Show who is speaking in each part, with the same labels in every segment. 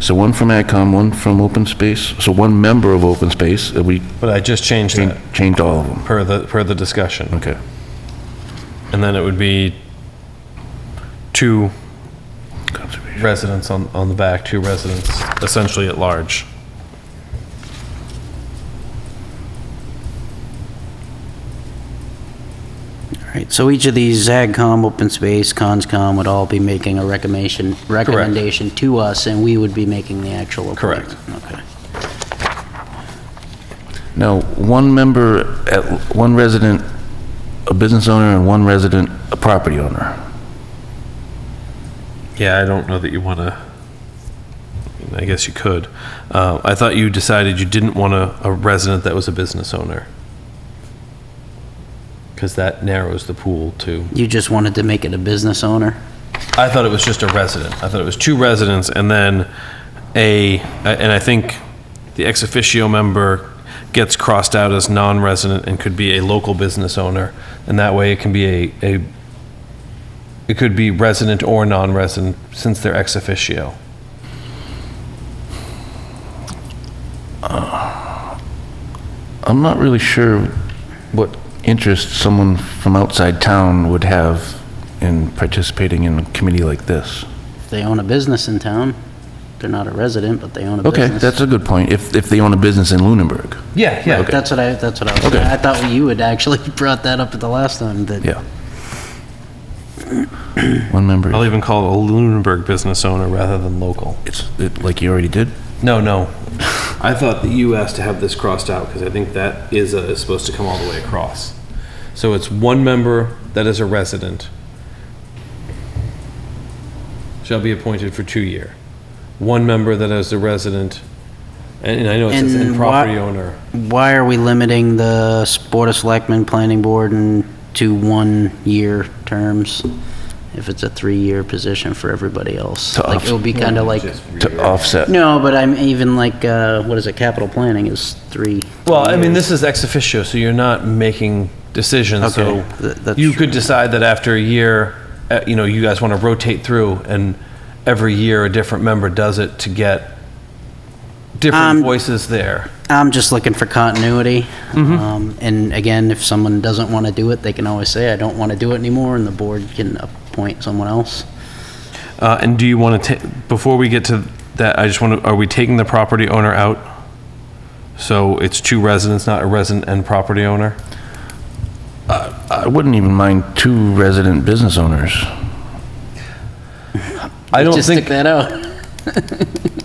Speaker 1: So one from AdCom, one from Open Space, so one member of Open Space, uh, we
Speaker 2: But I just changed
Speaker 1: chan-
Speaker 2: that
Speaker 1: changed all of them.
Speaker 2: per the, per the discussion.
Speaker 1: Okay.
Speaker 2: And then it would be two
Speaker 1: Conservation.
Speaker 2: residents on, on the back, two residents essentially at large.
Speaker 3: Right, so each of these, ZagCom, Open Space, ConsCom, would all be making a recommendation, recommendation to us, and we would be making the actual
Speaker 2: Correct.
Speaker 3: appointment. Correct.
Speaker 1: Now, one member, at one resident, a business owner, and one resident, a property owner.
Speaker 2: Yeah, I don't know that you want to, I guess you could. Uh, I thought you decided you didn't want a, a resident that was a business owner. Because that narrows the pool to,
Speaker 3: You just wanted to make it a business owner?
Speaker 2: I thought it was just a resident. I thought it was two residents and then a, and I think the ex officio member gets crossed out as non-resident and could be a local business owner. And that way it can be a, a, it could be resident or non-resident since they're ex officio.
Speaker 1: I'm not really sure what interest someone from outside town would have in participating in a committee like this.
Speaker 3: If they own a business in town, they're not a resident, but they own a
Speaker 1: Okay,
Speaker 3: business.
Speaker 1: that's a good point, if, if they own a business in Lunenburg.
Speaker 2: Yeah, yeah.
Speaker 3: That's what I, that's what I was,
Speaker 1: Okay.
Speaker 3: I thought you had actually brought that up at the last time, that.
Speaker 1: Yeah. One member,
Speaker 2: I'll even call it a Lunenburg business owner rather than local.
Speaker 1: it's, it- like you already did?
Speaker 2: No, no. I thought that you asked to have this crossed out because I think that is, uh, is supposed to come all the way across. So it's one member that is a resident shall be appointed for two year. One member that is a resident, and and I know it says and
Speaker 3: And
Speaker 2: property
Speaker 3: wha-
Speaker 2: owner.
Speaker 3: Why are we limiting the s- Board of Selectmen, Planning Board, and to one-year terms? If it's a three-year position for everybody else?
Speaker 1: To
Speaker 3: Like,
Speaker 1: off-
Speaker 3: it would be kind of like,
Speaker 1: To offset,
Speaker 3: no, but I'm even like, uh, what is it, capital planning is three.
Speaker 2: Well, I mean, this is ex officio, so you're not making decisions, so
Speaker 3: Okay, th- that's
Speaker 2: you could decide that after a year, uh, you know, you guys want to rotate through, and every year a different member does it to get different
Speaker 3: Um,
Speaker 2: voices there.
Speaker 3: I'm just looking for continuity.
Speaker 2: Mm-hmm.
Speaker 3: Um, And again, if someone doesn't want to do it, they can always say, I don't want to do it anymore, and the board can appoint someone else.
Speaker 2: Uh, And do you want to, before we get to that, I just want to, are we taking the property owner out? So it's two residents, not a resident and property owner?
Speaker 1: I wouldn't even mind two resident business owners.
Speaker 2: I don't
Speaker 3: Just
Speaker 2: think,
Speaker 3: stick that out.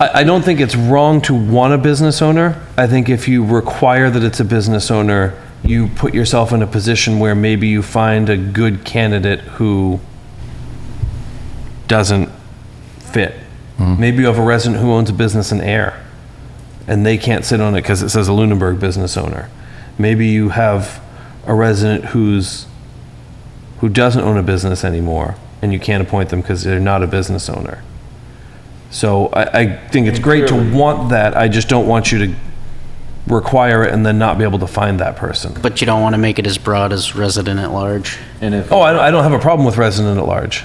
Speaker 2: I, I don't think it's wrong to want a business owner. I think if you require that it's a business owner, you put yourself in a position where maybe you find a good candidate who doesn't fit. Maybe you have a resident who owns a business in air and they can't sit on it because it says a Lunenburg business owner. Maybe you have a resident who's who doesn't own a business anymore and you can't appoint them because they're not a business owner. So I, I think it's great to want that. I just don't want you to require it and then not be able to find that person.
Speaker 3: But you don't want to make it as broad as resident at large.
Speaker 2: Oh, I don't, I don't have a problem with resident at large.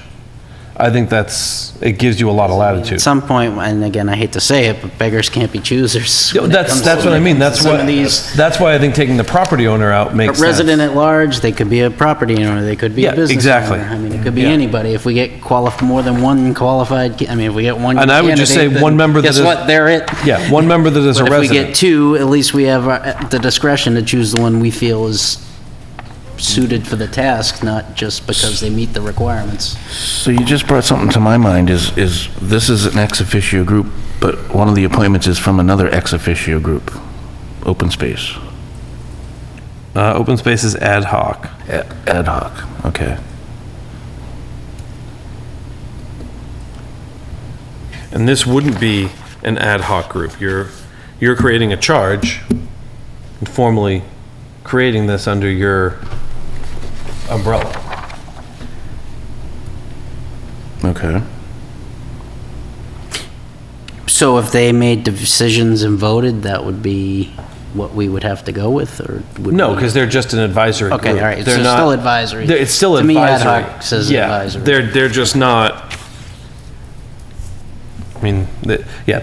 Speaker 2: I think that's, it gives you a lot of
Speaker 3: At
Speaker 2: latitude.
Speaker 3: some point, and again, I hate to say it, but beggars can't be choosers.
Speaker 2: Yeah,
Speaker 3: when it
Speaker 2: That's,
Speaker 3: comes
Speaker 2: that's
Speaker 3: to-
Speaker 2: what I mean. That's
Speaker 3: some
Speaker 2: why,
Speaker 3: of these-
Speaker 2: that's why I think taking the property owner out
Speaker 3: A
Speaker 2: makes sense.
Speaker 3: resident at large, they could be a property owner, they could be
Speaker 2: Yeah,
Speaker 3: a business owner.
Speaker 2: exactly.
Speaker 3: I mean, it could be
Speaker 2: Yeah.
Speaker 3: anybody. If we get qualif, more than one qualified, ca- I mean, if we get one.
Speaker 2: And I would just
Speaker 3: candidate,
Speaker 2: say
Speaker 3: then
Speaker 2: one member that is-
Speaker 3: Guess what? They're it.
Speaker 2: Yeah, one member that is a
Speaker 3: But if we get
Speaker 2: resident.
Speaker 3: two, at least we have uh, the discretion to choose the one we feel is suited for the task, not just because they meet the requirements.
Speaker 1: So you just brought something to my mind, is, is, this is an ex officio group, but one of the appointments is from another ex officio group, Open Space,
Speaker 2: Uh, open space is ad hoc.
Speaker 1: a- ad hoc, okay.
Speaker 2: And this wouldn't be an ad hoc group. You're, you're creating a charge, and formally creating this under your umbrella.
Speaker 1: Okay.
Speaker 3: So if they made decisions and voted, that would be what we would have to go with, or? would
Speaker 2: No,
Speaker 3: we-
Speaker 2: because they're just an advisory group.
Speaker 3: Okay, all right, so
Speaker 2: They're
Speaker 3: it's
Speaker 2: not-
Speaker 3: still advisory.
Speaker 2: they're- It's still
Speaker 3: To me, ad
Speaker 2: advisory.
Speaker 3: hoc says
Speaker 2: Yeah,
Speaker 3: advisory.
Speaker 2: They're, they're just not, I mean, the- yeah,